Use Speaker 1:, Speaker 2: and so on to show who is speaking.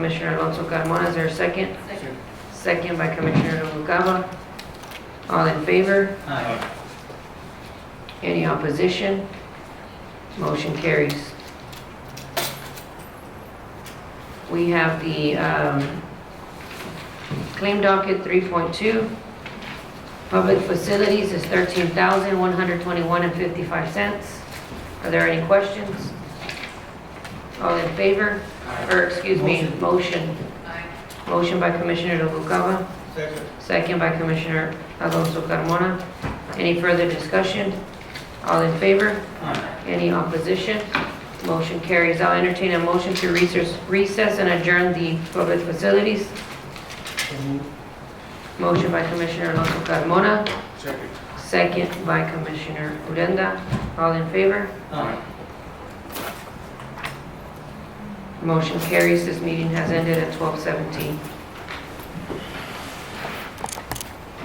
Speaker 1: Commissioner Alonso Carmona, is there a second? Second by Commissioner Noguera. All in favor?
Speaker 2: Aye.
Speaker 1: Any opposition? Motion carries. We have the um, claim docket 3.2. Public facilities is $13,121.55. Are there any questions? All in favor? Or, excuse me, motion. Motion by Commissioner Noguera.
Speaker 2: Second.
Speaker 1: Second by Commissioner Alonso Carmona. Any further discussion? All in favor?
Speaker 2: Aye.
Speaker 1: Any opposition? Motion carries. I'll entertain a motion to recess recess and adjourn the public facilities. Motion by Commissioner Alonso Carmona,
Speaker 2: Second.
Speaker 1: second by Commissioner Urenda. All in favor?
Speaker 2: Aye.
Speaker 1: Motion carries. This meeting has ended at 12:17.